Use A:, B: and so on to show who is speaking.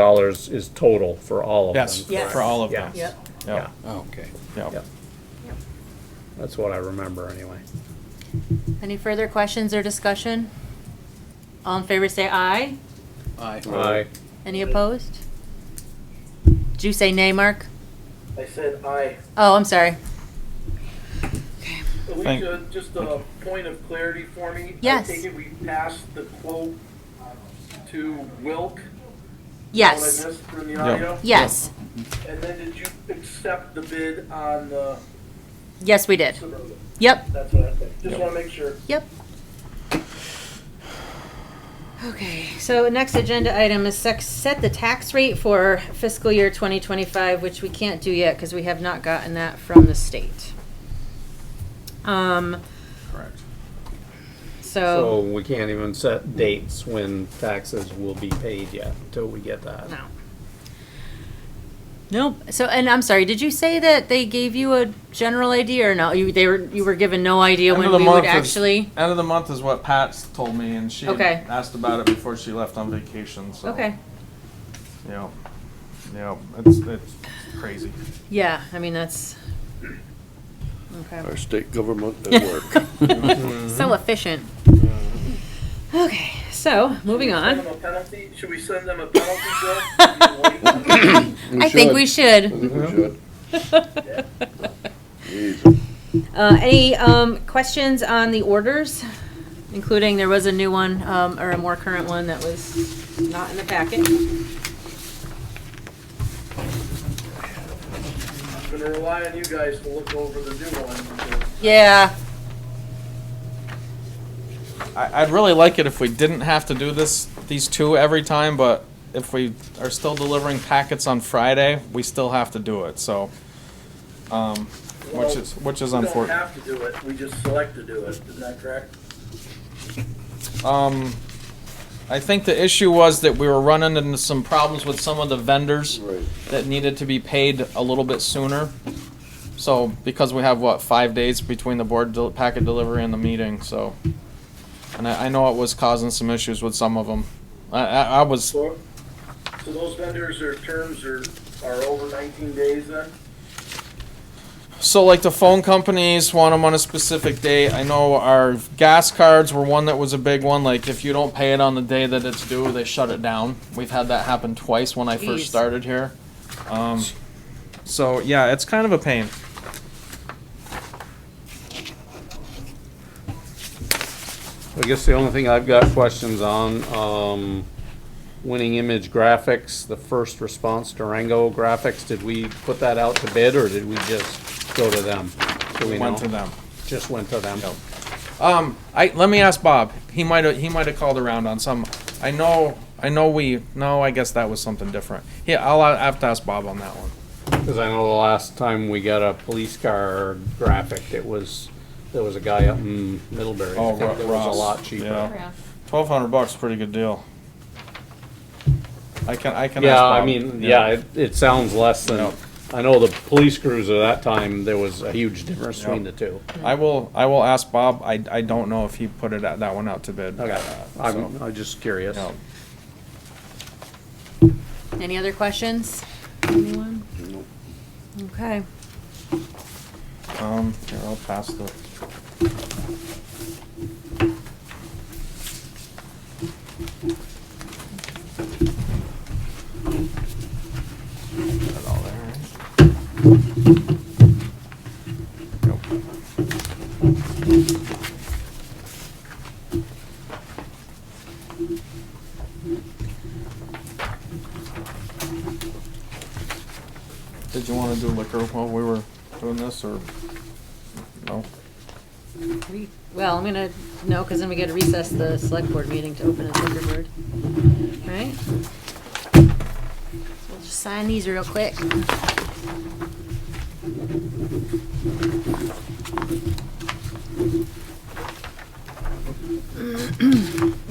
A: dollars is total for all of them.
B: Yes,
C: Yes.
B: for all of them.
A: Yeah.
C: Yep.
B: Yeah,
D: Okay.
B: yeah.
A: Yeah. That's what I remember anyway.
C: Any further questions or discussion? All in favor, say aye.
A: Aye.
C: Any opposed? Did you say nay, Mark?
E: I said aye.
C: Oh, I'm sorry.
B: Thank-
E: Alicia, just a point of clarity for me.
C: Yes.
E: I take it we passed the quote to Wilk?
C: Yes,
E: What I missed from the
B: Yeah.
E: audio?
C: yes,
E: And then did you accept the bid on the
C: yes, we did.
E: Suburban?
C: Yep,
E: That's what I, just wanna make sure.
C: yep. Okay, so next agenda item is sex, set the tax rate for fiscal year 2025, which we can't do yet because we have not gotten that from the state. Um,
B: Correct.
A: So we can't even set dates when taxes will be paid yet until we get that.
C: No. Nope. So, and I'm sorry, did you say that they gave you a general idea or no? You, they were, you were given no idea
B: End
C: when
B: of the
C: we
B: month
C: would
B: is-
C: actually?
B: End of the month is what Pat's told me, and she had
C: Okay.
B: asked about it before she left on vacation, so.
C: Okay.
B: Yeah, yeah, it's, it's crazy.
C: Yeah, I mean, that's. Okay.
F: Our state government at work.
C: So efficient. Okay, so moving
E: Should we
C: on.
E: send them a penalty? Should we send them a penalty bill? Do you wait?
C: I think we
F: I
C: should.
F: think we should. Jeez.
C: Uh, any, um, questions on the orders? Including there was a new one, um, or a more current one that was not in the packet.
E: I'm gonna rely on you guys to look over the new one. because
C: Yeah,
B: I, I'd really like it if we didn't have to do this, these two every time, but if we are still delivering packets on Friday, we still have to do it, so. Um, which is, which is
E: We don't
B: unfortunate.
E: have to do it, we just select to do it, isn't that correct?
B: Um, I think the issue was that we were running into some problems with some of the vendors
F: Right.
B: that needed to be paid a little bit sooner. So, because we have, what, five days between the board del- packet delivery and the meeting, so. And I, I know it was causing some issues with some of them. I, I, I was,
E: So, so those vendors, their terms are, are over nineteen days then?
B: so like the phone companies want them on a specific date. I know our gas cards were one that was a big one, like if you don't pay it on the day that it's due, they shut it down. We've had that happen twice when I
C: Jeez.
B: first started here. Um, so yeah, it's kind of a pain.
A: I guess the only thing I've got questions on, um, Winning Image Graphics, the first response Durango graphics, did we put that out to bid or did we just go to them? Do we
B: Went
A: know?
B: to them.
A: Just went to them.
B: Um, I let me ask Bob. He might have he might have called around on some. I know I know we no. I guess that was something different. Yeah, I'll I have to ask Bob on that one.
A: Cause I know the last time we got a police car graphic, it was, there was a guy up in Middlebury. I
B: Oh,
A: think It
B: Ross,
A: was a lot
B: yeah.
A: cheaper.
B: Twelve hundred bucks, pretty good deal. I can I can. ask
A: Yeah,
B: Bob.
A: I mean, yeah, it, it sounds less
B: Yeah.
A: than, I know the police cruiser that time, there was a huge difference between the
B: Yeah.
A: two.
B: I will I will ask Bob. I, I don't know if he put it out, that one out to bid.
A: Okay, I'm, I'm just curious.
B: Yeah.
C: Any other questions? Anyone? Okay.
B: Um, here I'll pass the. Got it all there, right? Nope. Did you wanna do liquor while we were doing this, or? No?
C: We- Well, I'm gonna, no, because then we gotta recess the select board meeting to open a liquor board, right? So We'll just sign these real quick.
B: 啊